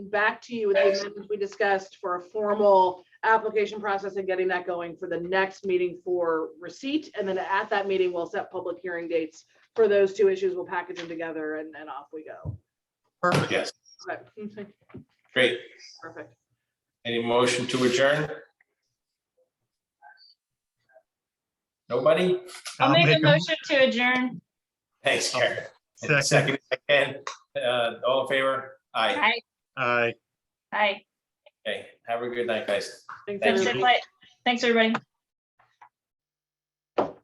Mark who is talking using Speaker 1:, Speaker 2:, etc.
Speaker 1: back to you with the amendments we discussed for a formal application process and getting that going for the next meeting for receipt. And then at that meeting, we'll set public hearing dates for those two issues. We'll package them together and, and off we go.
Speaker 2: Perfect.
Speaker 3: Yes,
Speaker 1: Okay, okay,
Speaker 3: great.
Speaker 1: Perfect.
Speaker 3: Any motion to adjourn? Nobody?
Speaker 4: I'll
Speaker 2: I'll
Speaker 4: make a
Speaker 2: make a-
Speaker 4: motion to adjourn.
Speaker 3: Thanks, Karen.
Speaker 2: Second.
Speaker 3: Second, again, uh, all in favor? Aye.
Speaker 4: Aye,
Speaker 2: Aye.
Speaker 4: aye.
Speaker 3: Okay, have a good night, guys.
Speaker 1: Thanks,
Speaker 3: Thank
Speaker 4: Thanks,
Speaker 1: everybody.
Speaker 3: you.
Speaker 4: everybody. Thanks, everybody.